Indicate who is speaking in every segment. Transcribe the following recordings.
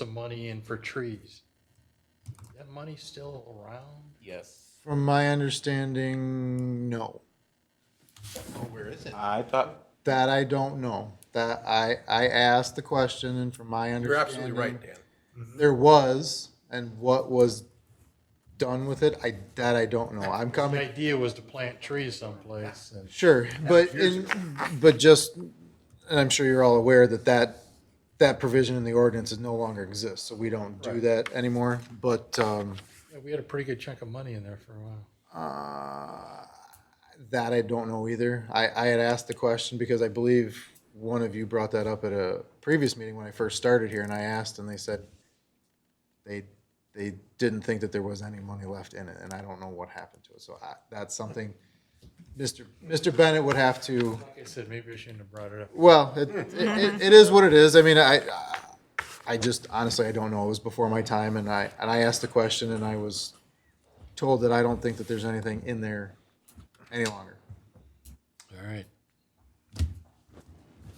Speaker 1: some money in for trees. That money still around?
Speaker 2: Yes.
Speaker 3: From my understanding, no.
Speaker 1: Oh, where is it?
Speaker 2: I thought,
Speaker 3: That I don't know. That I, I asked the question and from my
Speaker 4: You're
Speaker 3: understanding.
Speaker 4: absolutely right, Dan.
Speaker 3: There was, and what was done with it, I, that I don't know. I'm
Speaker 1: The
Speaker 3: coming,
Speaker 1: idea was to plant trees someplace and
Speaker 3: sure, but in, but just, and I'm sure you're all aware that that, that provision in the ordinance is no longer exists, so we don't do that anymore, but, um,
Speaker 1: yeah, we had a pretty good chunk of money in there for a while.
Speaker 3: Uh, That I don't know either. I, I had asked the question because I believe one of you brought that up at a previous meeting when I first started here and I asked and they said they, they didn't think that there was any money left in it and I don't know what happened to it. So I, that's something Mr. Mr. Bennett would have to,
Speaker 1: Like I said, maybe I shouldn't have brought it up.
Speaker 3: well, it, it, it is what it is. I mean, I, I just honestly, I don't know. It was before my time and I, and I asked the question and I was told that I don't think that there's anything in there any longer.
Speaker 1: All right.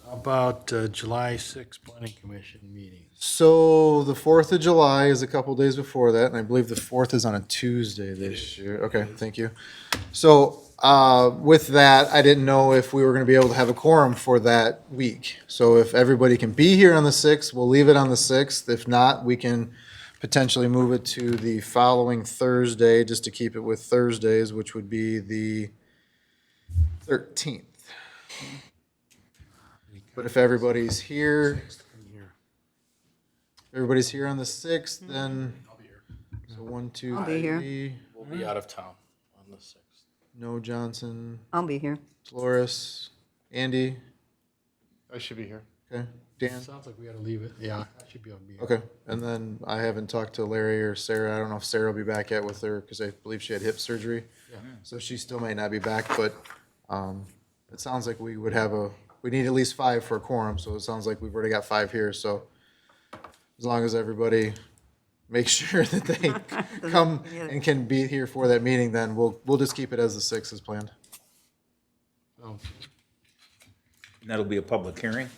Speaker 1: How about uh, July 6th planning commission meeting?
Speaker 3: So the Fourth of July is a couple days before that, and I believe the Fourth is on a Tuesday this year. Okay, thank you. So uh, with that, I didn't know if we were going to be able to have a quorum for that week. So if everybody can be here on the sixth, we'll leave it on the sixth. If not, we can potentially move it to the following Thursday, just to keep it with Thursdays, which would be the thirteenth. But if everybody's here, Everybody's here on the sixth, then. So one, two,
Speaker 5: Mm-hmm. I'll be here.
Speaker 3: three.
Speaker 2: we'll be out of town on the sixth.
Speaker 3: No Johnson,
Speaker 5: I'll be here.
Speaker 3: Flores, Andy.
Speaker 2: I should be here.
Speaker 3: Okay, Dan.
Speaker 1: Sounds like we gotta leave it. Yeah, I should be able to be. here.
Speaker 3: Okay, and then I haven't talked to Larry or Sarah. I don't know if Sarah will be back yet with her because I believe she had hip surgery. So she still may not be back, but um, it sounds like we would have a, we need at least five for a quorum. So it sounds like we've already got five here. So as long as everybody makes sure that they come and can be here for that meeting, then we'll, we'll just keep it as the six as planned.
Speaker 1: Oh,
Speaker 6: And That'll be a public hearing?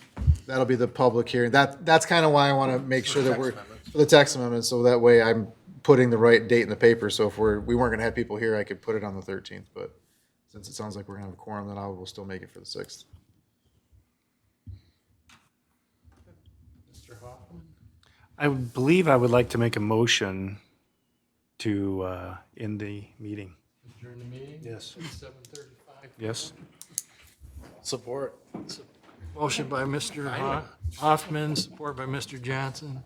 Speaker 3: That'll be the public hearing. That, that's kind of why I want to make sure that we're, for the tax amendment, so that way I'm putting the right date in the paper. So if we're, we weren't going to have people here, I could put it on the 13th, but since it sounds like we're going to have a quorum, then I will still make it for the 6th.
Speaker 1: Mr. Hoffman?
Speaker 7: I would believe I would like to make a motion to uh, end the meeting.
Speaker 1: During the meeting?
Speaker 7: Yes.
Speaker 1: Seven thirty-five.
Speaker 7: Yes?
Speaker 2: Support.
Speaker 1: Motion by Mr. Ho- Hoffman, support by Mr. Johnson.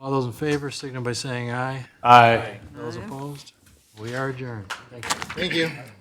Speaker 1: All those in favor, signal by saying aye.
Speaker 7: Aye.
Speaker 1: Those opposed? We are adjourned. Thank you.
Speaker 3: Thank you.